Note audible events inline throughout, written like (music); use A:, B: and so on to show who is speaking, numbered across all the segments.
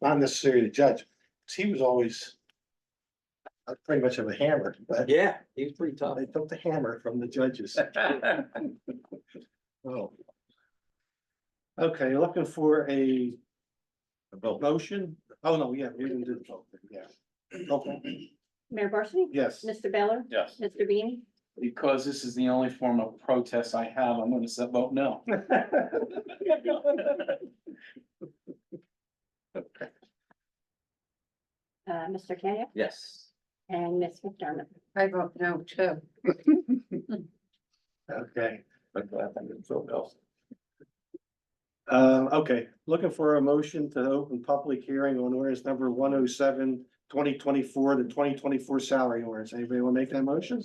A: not necessarily the judge, 'cause he was always. uh, Pretty much of a hammer, but
B: Yeah, he was pretty tough.
A: they took the hammer from the
C: (laughs)
A: judges. Oh. Okay, looking for a motion? Oh, no, yeah, we didn't do the vote, yeah. Okay,
D: Mayor Barsney? (laughs)
A: yes, (laughs)
D: Mr. Beller?
C: Yes.
D: Mr. Bean?
C: Because this is the only form of protest I have, I'm gonna say vote no.
D: Uh, Mr. Kenya?
B: Yes.
D: And Ms. McDermott?
E: I vote no too.
A: okay.
B: I'm glad I'm in Philadelphia.
A: Um, okay, looking for a motion to open public hearing on ordinance number 107, 2024, the twenty twenty-four salary ordinance. Anybody wanna make that motion?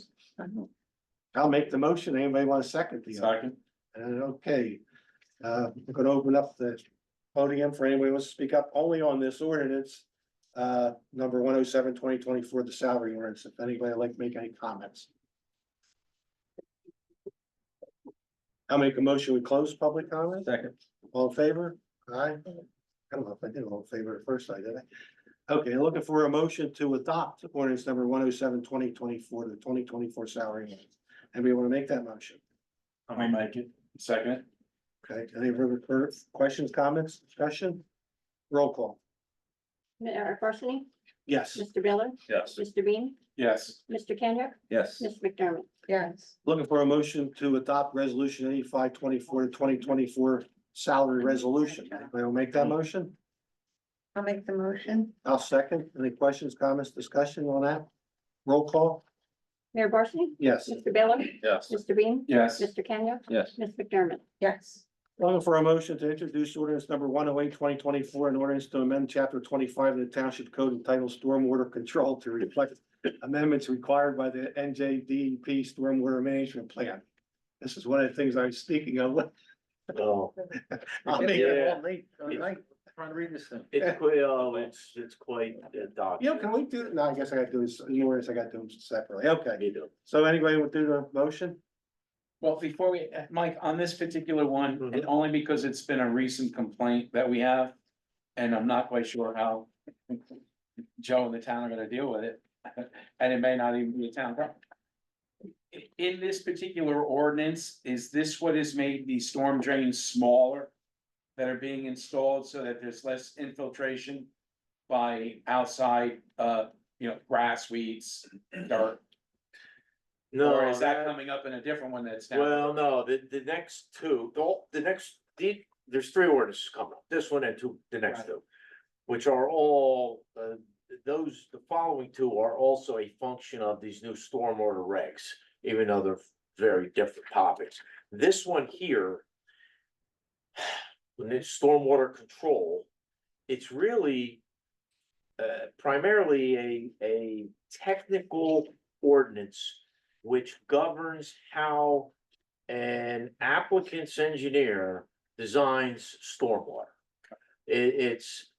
A: I'll make the motion. Anybody want to second the?
C: Second,
A: And okay, uh, we're gonna open up the podium for anyone who wants to speak up only on this ordinance. Uh, number 107-2024, the salary ordinance, if anybody would like to make any comments. I'll make a motion, we close public comment,
C: second,
A: all in favor, aye? I don't know if I did all in favor at first, I did. Okay, looking for a motion to adopt ordinance number 107-2024, the twenty twenty-four salary ordinance. Anybody wanna make that motion?
C: I'll make it, second,
A: Okay, any further fur- questions, comments, discussion? Roll call,
D: Mayor Barsney?
A: yes,
D: Mr. Beller?
C: yes,
D: Mr. Bean?
C: yes,
D: Mr. Kenya?
B: Yes,
D: Ms. McDermott?
E: Yes,
A: looking for a motion to adopt resolution eighty-five twenty-four to twenty twenty-four salary resolution. Anybody will make that motion?
E: I'll make the motion.
A: I'll second, any questions, comments, discussion on that? Roll call,
D: Mayor Barsney?
A: yes,
D: Mr. Beller?
C: yes,
D: Mr. Bean?
C: yes,
D: Mr. Kenya?
B: yes,
D: Ms. McDermott?
C: (laughs)
D: (laughs)
E: Yes,
A: looking for a motion to introduce ordinance number 108 2024, an ordinance to amend chapter twenty-five of the township code entitled stormwater control to reflect amendments required by the NJDEP stormwater management plan. This is one of the things I was speaking of
F: Oh,
A: I'll make it all late.
B: Trying to read this thing.
F: it's quite, oh, it's, it's quite a
A: Yeah,
F: document.
A: can we do, no, I guess I gotta do this, in orders, I gotta do them separately, okay,
F: You do.
A: so anybody would do the motion?
C: well, before we, uh, Mike, on this particular one,
F: Mm-hmm.
C: and only because it's been a recent complaint that we have. And I'm not quite sure how Joe and the town are gonna deal with it, (laughs) and it may not even be a town problem. I- In this particular ordinance, is this what has made the storm drains smaller? That are being installed so that there's less infiltration by outside, uh, you know, grass, weeds, dirt? Or
F: No,
C: is that
F: that-
C: coming up in a different one that's now?
F: well, no, the, the next two, the, whole- the next, the, there's three orders coming up, this one and two, the next
C: Right.
F: two. Which are all, uh, those, the following two are also a function of these new stormwater regs, even though they're very different topics. This one here. (sighs) When it's stormwater control, it's really. Uh, primarily a, a technical ordinance which governs how an applicant's engineer designs stormwater. It, it's,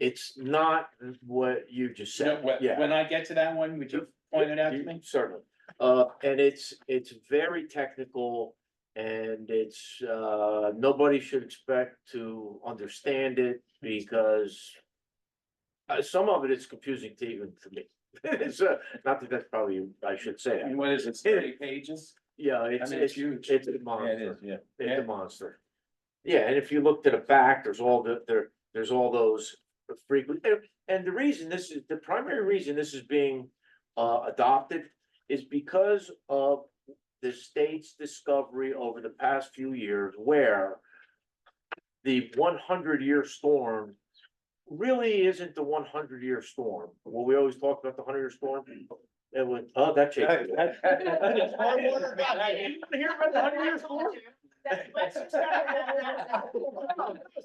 F: it's not what you just
C: No,
F: said,
C: wh-
F: yeah.
C: When I get to that one, would you point it out to
F: You-
C: me?
F: Certainly, uh, and it's, it's very technical and it's, uh, nobody should expect to understand it because. Uh, some of it is confusing to even to me, (laughs) it's, uh, not that that's probably, I should say,
C: And
F: that.
C: what is it, thirty pages?
F: (laughs) yeah,
C: I
F: it's,
C: mean, it's
F: it's,
C: huge.
F: it's a
B: yeah, it
F: monster,
B: is, (laughs) yeah.
F: it's
C: Yeah.
F: a monster. Yeah, and if you look to the back, there's all the, there, there's all those frequent, and- and the reason this is, the primary reason this is being. Uh, adopted is because of the state's discovery over the past few years where. The one hundred year storm really isn't the one hundred year storm, Well, we always talk about the hundred year storm. It was, oh, that changed. You wanna hear about the 100-year storm?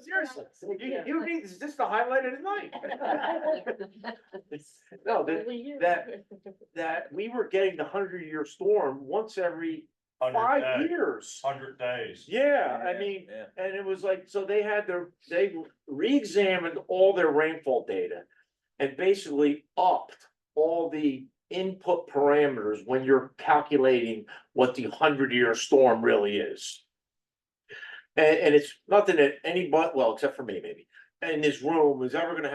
F: Seriously, you, you need, is this the highlight of the night? (laughs) No, that, that, that we were getting the hundred year storm once every five years.
G: Hundred days.
F: Yeah, I mean,
B: (laughs) Yeah.
F: and it was like, so they had their, they re-examined all their rainfall data. And basically upped all the input parameters when you're calculating what the hundred year storm really is. And, and it's nothing that anybody, well, except for me maybe, in this room is ever gonna